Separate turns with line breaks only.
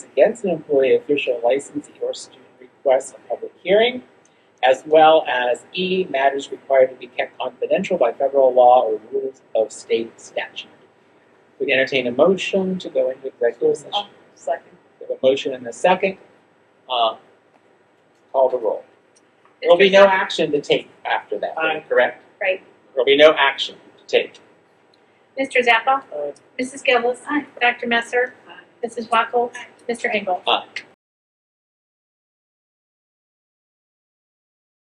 against an employee, official licensee, or student requests a public hearing, as well as E, matters required to be kept confidential by federal law or rules of state statute. We entertain a motion to go into executive session.
Second.
We have a motion and a second. Uh, Call the roll. There'll be no action to take after that,
Aye.
correct?
Right.
There'll be no action to take.
Mr. Zappa?
Aye.
Mrs. Gillis? Dr. Messer? Mrs. Wackel? Mr. Engel?
Aye.